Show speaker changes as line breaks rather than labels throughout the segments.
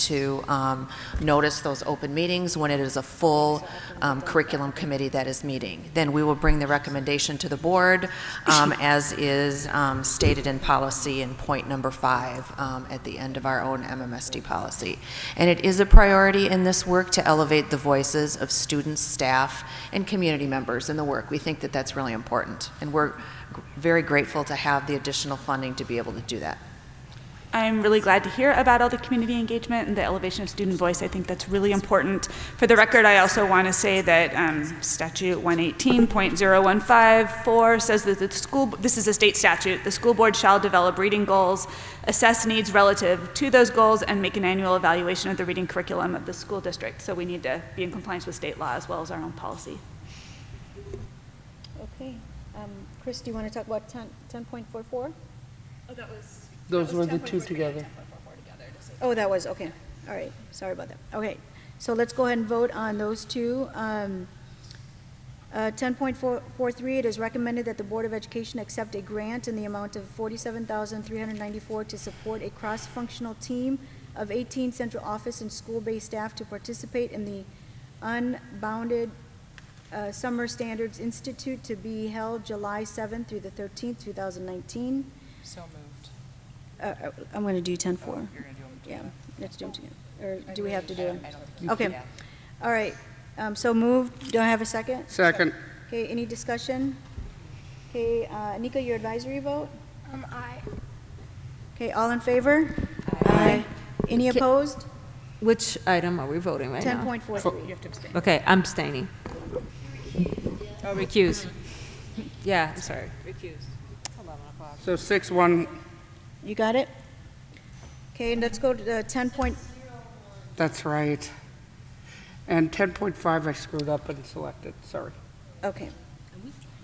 to um, notice those open meetings when it is a full um, curriculum committee that is meeting. Then we will bring the recommendation to the board, um, as is um, stated in policy in point number five um, at the end of our own MMSD policy. And it is a priority in this work to elevate the voices of students, staff, and community members in the work. We think that that's really important, and we're very grateful to have the additional funding to be able to do that.
I'm really glad to hear about all the community engagement and the elevation of student voice. I think that's really important. For the record, I also want to say that um, statute 118.0154 says that the school, this is a state statute, the school board shall develop reading goals, assess needs relative to those goals, and make an annual evaluation of the reading curriculum of the school district. So we need to be in compliance with state law as well as our own policy.
Okay. Um, Chris, do you want to talk about 10, 10.44?
Oh, that was.
Those were the two together.
Oh, that was, okay. All right. Sorry about that. Okay. So let's go ahead and vote on those two. Um, uh, 10.43, it is recommended that the Board of Education accept a grant in the amount of 47394 to support a cross-functional team of 18 central office and school-based staff to participate in the Unbounded uh, Summer Standards Institute to be held July 7th through the 13th, 2019.
So moved.
Uh, uh, I'm going to do 10-4.
You're gonna do them
Yeah,
together.
let's do them together. Or do we
really-
have to do
I-
them?
I don't think you
Okay,
can.
all right. Um, So moved. Do I have a second?
Second,
Okay, any discussion? Okay, uh, Nika, your advisory vote?
Um, I,
Okay, all in favor? Aye. Any opposed?
Which item are we voting right now?
10.43.
Okay, I'm abstaining. Oh, recuse. Yeah, I'm sorry.
so six, one,
You got it? Okay, and let's go to the 10 point,
that's right. And 10.5, I screwed up and selected, sorry.
okay.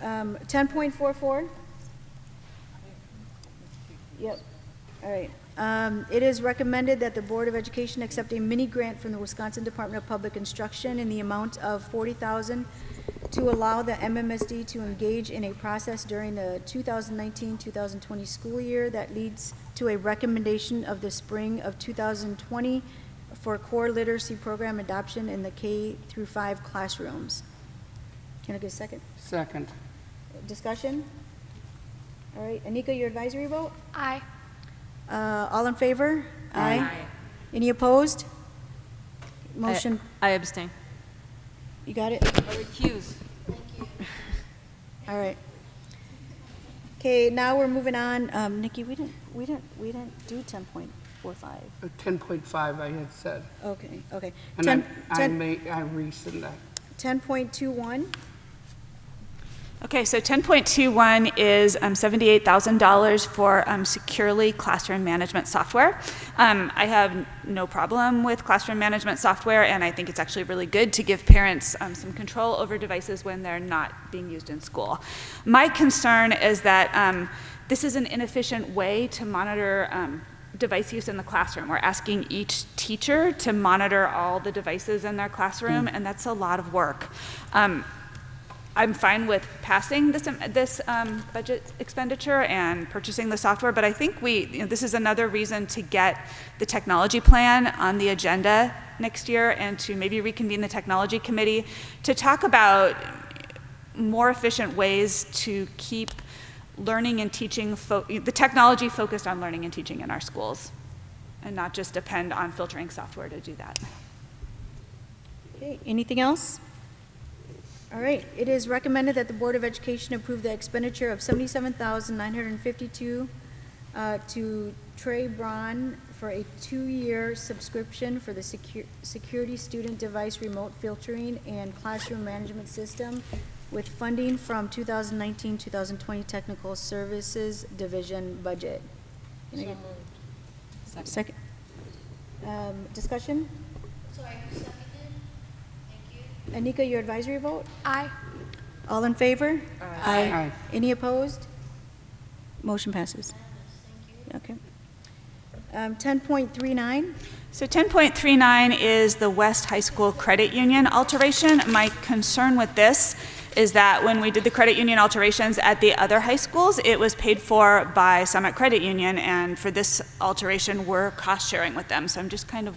Um, 10.44? Yep, all right. Um, It is recommended that the Board of Education accept a mini-grant from the Wisconsin Department of Public Instruction in the amount of 40000 to allow the MMSD to engage in a process during the 2019-2020 school year that leads to a recommendation of the spring of 2020 for core literacy program adoption in the K through 5 classrooms. Can I get a second?
Second,
Discussion? All right, Anika, your advisory vote?
I,
Uh, All in favor? Aye. Any opposed? Motion,
I abstain.
you got it?
Recuse.
All right. Okay, now we're moving on. Um, Nikki, we didn't, we didn't, we didn't do 10.45.
Uh, 10.5 I had said.
Okay, okay.
And I-
10
I
10
may, I rescind that.
10.21,
Okay, so 10.21 is um, $78,000 for um, securely classroom management software. Um, I have no problem with classroom management software, and I think it's actually really good to give parents um, some control over devices when they're not being used in school. My concern is that um, this is an inefficient way to monitor um, device use in the classroom. We're asking each teacher to monitor all the devices in their classroom, and that's a lot of work. Um, I'm fine with passing this, this um, budget expenditure and purchasing the software, but I think we, you know, this is another reason to get the technology plan on the agenda next year and to maybe reconvene the technology committee to talk about more efficient ways to keep learning and teaching, fo- the technology focused on learning and teaching in our schools and not just depend on filtering software to do that.
Okay, anything else? All right, it is recommended that the Board of Education approve the expenditure of seventy-seven thousand nine hundred and fifty-two uh, to Trey Braun for a two-year subscription for the secu- Security Student Device Remote Filtering and Classroom Management System with funding from 2019-2020 Technical Services Division budget. Can I get- Second. Um, Discussion?
Sorry, who seconded? Thank you.
Anika, your advisory vote?
I,
All in favor?
Aye.
Any opposed? Motion passes. Okay. Um, 10.39,
So 10.39 is the West High School Credit Union alteration. My concern with this is that when we did the credit union alterations at the other high schools, it was paid for by Summit Credit Union, and for this alteration, we're cost sharing with them. So I'm just kind of